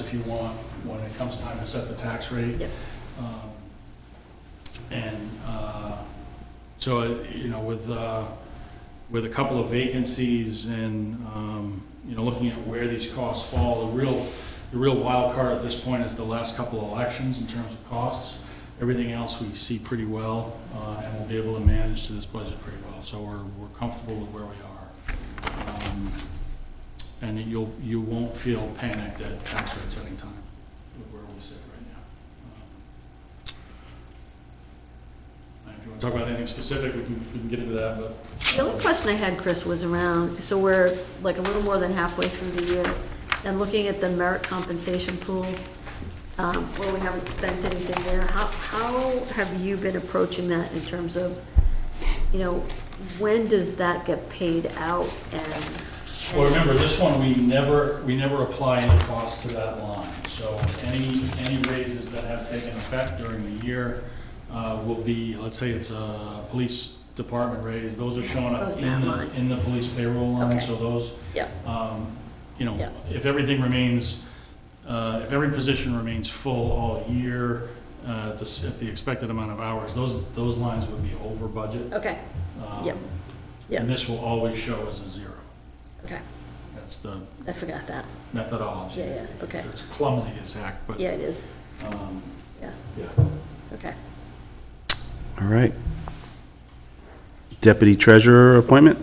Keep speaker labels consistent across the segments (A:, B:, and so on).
A: if you want when it comes time to set the tax rate.
B: Yep.
A: Um, And uh, so, uh, you know, with, uh, with a couple of vacancies and, um, you know, looking at where these costs fall, the real, the real wild card at this point is the last couple of elections in terms of costs. Everything else we see pretty well, uh, and we'll be able to manage to this budget pretty well, so we're, we're comfortable with where we are. Um, And you'll, you won't feel panicked at tax rates anytime with where we sit right now. Um, and If you want to talk about anything specific, we can, we can get into that, but.
B: The only question I had, Chris, was around, so we're like a little more than halfway through the year, and looking at the merit compensation pool, um, where we haven't spent anything there, how, how have you been approaching that in terms of, you know, when does that get paid out and?
A: Well, remember, this one, we never, we never apply any cost to that line. So any, any raises that have taken effect during the year uh, will be, let's say it's a police department raise, those are showing up
B: Goes in
A: in
B: that
A: the,
B: line.
A: in the police payroll line,
B: Okay.
A: so those,
B: Yeah,
A: um, you
B: Yeah.
A: know, if everything remains, uh, if every position remains full all year, uh, at the s- at the expected amount of hours, those, those lines would be over budget.
B: okay,
A: Um,
B: Yep. Yep.
A: And this will always show as a zero.
B: okay,
A: That's the
B: I forgot that,
A: methodology.
B: Yeah, yeah, okay.
A: It's clumsy as heck, but,
B: yeah, it is,
A: um,
B: yeah,
A: yeah.
B: okay.
C: All right. Deputy Treasurer appointment?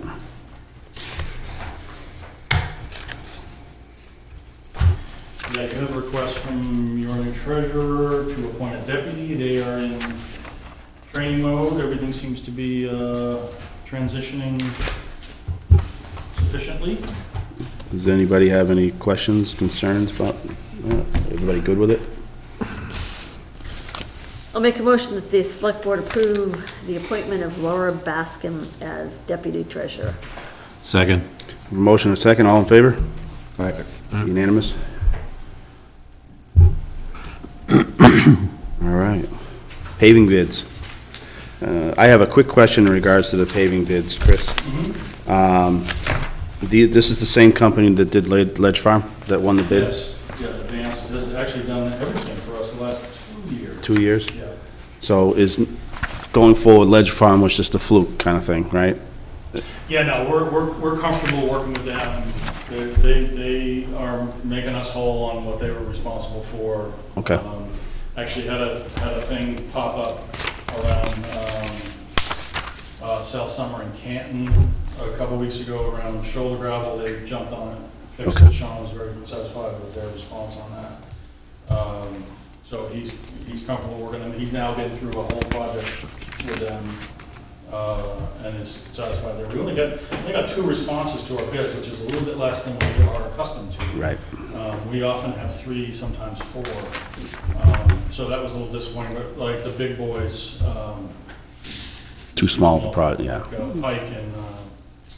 A: Yeah, you have a request from your new treasurer to appoint a deputy. They are in training mode. Everything seems to be, uh, transitioning sufficiently.
C: Does anybody have any questions, concerns about, that? everybody good with it?
B: I'll make a motion that the select board approve the appointment of Laura Baskin as deputy treasurer.
D: Second.
C: Motion and second, all in favor? Unanimous? All right. Paving bids. Uh, I have a quick question in regards to the paving bids, Chris. Um, the- This is the same company that did Led- Ledge Farm, that won the bid
A: Yes, yeah, Advanced has actually done everything for us the last two years.
C: two years?
A: Yeah,
C: So is, going forward, Ledge Farm was just a fluke kind of thing, right?
A: yeah, no, we're, we're, we're comfortable working with them. They, they, they are making us whole on what they were responsible for.
C: Okay.
A: Um, Actually had a, had a thing pop up around, um, uh, South Summer in Canton a couple weeks ago around shoulder gravel. They jumped on it, fixed
C: Okay.
A: it. Sean was very satisfied with their response on that. Um, So he's, he's comfortable working them. He's now been through a whole project with them uh, and is satisfied there. We only got, they got two responses to our bid, which is a little bit less than we are accustomed to.
C: Right.
A: Um, We often have three, sometimes four. Um, So that was a little disappointing, but like the big boys, um,
C: Too small, probably, yeah.
A: uh, Pike and, uh,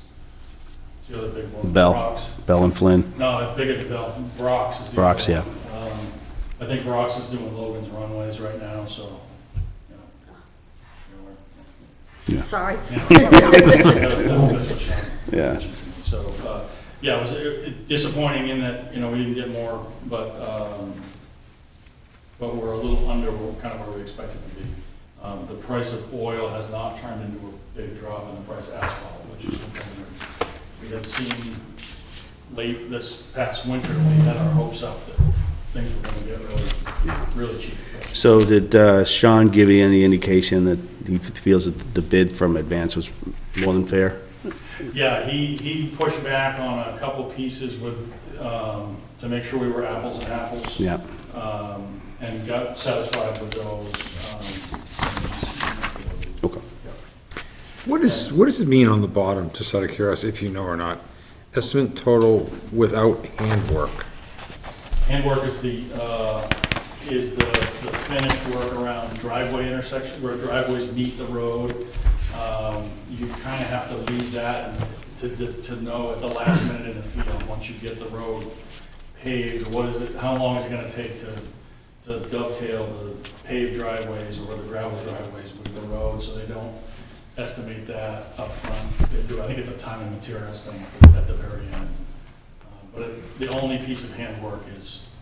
A: what's the other big one?
C: Bell.
A: Brock's.
C: Bell and Flynn,
A: No, bigger than Bell, Brock's is the.
C: Brock's,
A: other one. Um, I think Brock's is doing Logan's runways right now, so, you know, you know, we're-
B: Sorry.
A: that's what Sean
C: Yeah.
A: mentioned to me. So, uh, yeah, it was uh, disappointing in that, you know, we didn't get more, but, um, but we're a little under what- kind of where we expected to be. Um, The price of oil has not turned into a big drop in the price of asphalt, which is something that we had seen late this past winter. We had our hopes up that things were going to get really, really cheap. but-
C: So did uh, Sean give you any indication that he feels that the bid from Advance was more than fair?
A: Yeah, he, he pushed back on a couple pieces with, um, to make sure we were apples and apples.
C: Yeah.
A: Um, and got satisfied with um, those. um,
C: Okay.
E: What is, what does it mean on the bottom, just out of curiosity, if you know or not? Estimate total without handwork.
A: Handwork is the, uh, is the, the finished work around driveway intersection, where driveways meet the road. Um, you kinda have to leave that and to, to, to know at the last minute in the field, once you get the road paved, what is it, how long is it gonna take to, to dovetail the paved driveways or the gravel driveways with the road, so they don't estimate that upfront. They do, I think it's a time and materials thing at the very end. Uh, But it- the only piece of handwork is